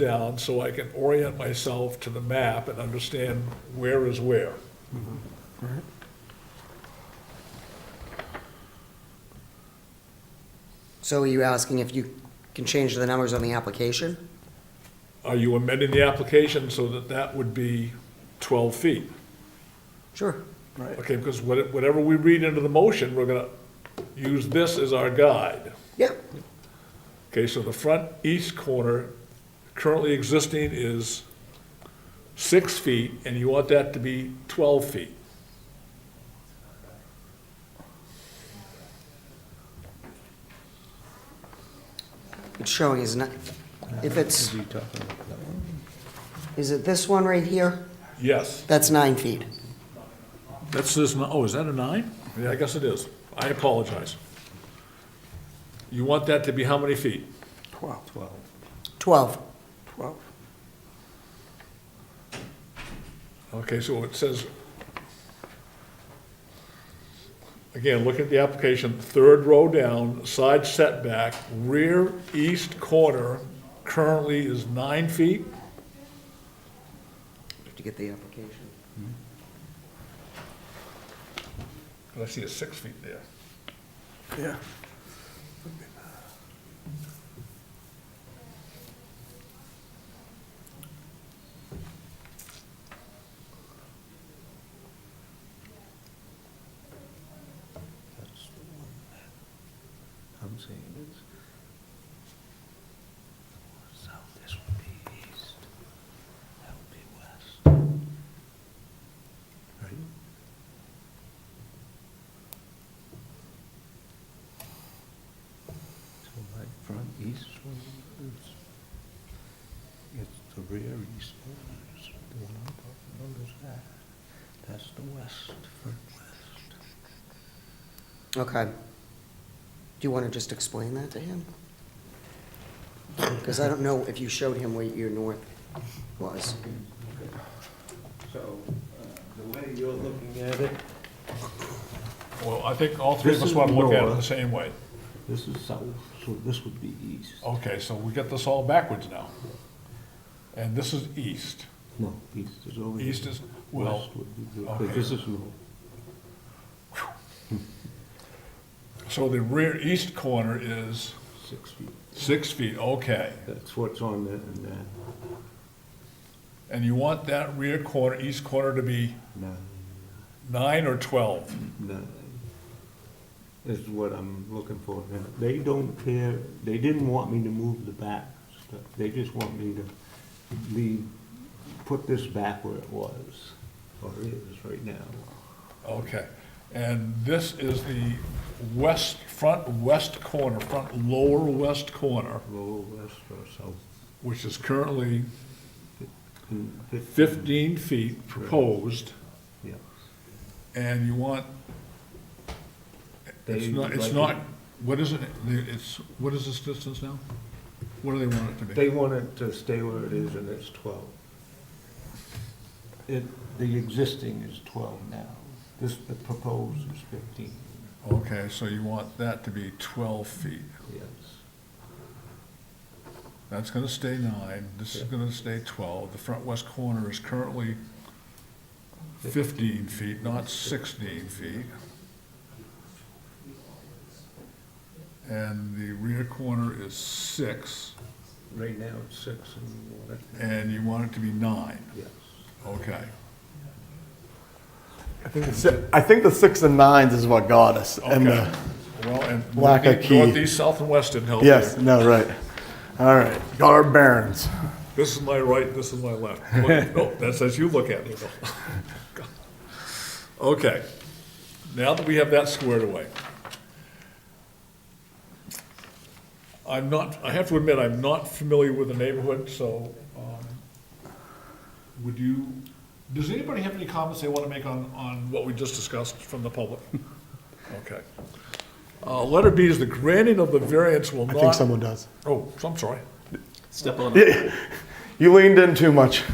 down so I can orient myself to the map and understand where is where. So are you asking if you can change the numbers on the application? Are you amending the application so that that would be 12 feet? Sure. Okay, because what- whatever we read into the motion, we're going to use this as our guide. Yeah, Okay, so the front east corner currently existing is six feet, and you want that to be 12 feet. it's showing is not, if it's, is it this one right here? Yes, That's nine feet. that's this, n- oh, is that a nine? Yeah, I guess it is. I apologize. You want that to be how many feet? 12. 12. Twelve. 12. Okay, so it says, again, look at the application, third row down, side setback, rear east corner currently is nine feet. Have to get the application. I see a six feet there. Yeah. I'm saying it's south, this would be east, that would be west. Right? So like front east one is, it's the rear east one, is the one I'm talking about is that. That's the west, front west. Okay. Do you want to just explain that to him? Because I don't know if you showed him where your north was. So, uh, the way you're looking at it, Well, I think all three of This us is want to look at it the north. same way. This is south, so this would be east. Okay, so we get this all backwards now. And this is east. No, east is over here. East is, well, West would be, the- okay. but this is north. so the rear east corner is six feet. six feet, okay. That's what's on there and then And you want that rear corner, east corner to be nine, nine or 12? nine is what I'm looking for. And They don't care, they didn't want me to move the back stuff. They just want me to leave, put this back where it was, or is right now. Okay, and this is the west, front west corner, front lower west corner, Lower west or south. which is currently and fif- fifteen feet proposed, Yeah. and you want, it's They not, it's like not, it- what is it, it's, what is this distance now? What do they want it to be? They want it to stay where it is, and it's 12. It, the existing is 12 now. This, the proposed is 15, Okay, so you want that to be twelve feet. yes. That's gonna stay nine, this is Yeah. gonna stay twelve. The front west corner is currently fifteen feet, not sixteen feet. And the rear corner is six, Right now, it's six and one, and you want it to be nine, yes. okay. I think the si- I think the six and nines is what got us. And uh, Okay. the, Well, and Lack of northeast, key. northeast, south, and west didn't help you. yes, no, right. All right, got our bearings. This is my right, this is my left. Look- No, that's as you look at it. Okay, now that we have that squared away. I'm not, I have to admit, I'm not familiar with the neighborhood, so, um, would you, does anybody have any comments they want to make on, on what we just discussed from the public? Okay. Uh, letter B is the granting of the variance will I not. think someone does. Oh, I'm sorry. You leaned in too much.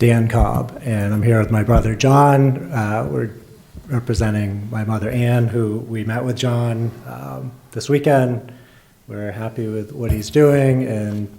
Dan Cobb, and I'm here with my brother John. Uh, We're representing my mother Ann, who we met with John um, this weekend, We're happy with what he's doing and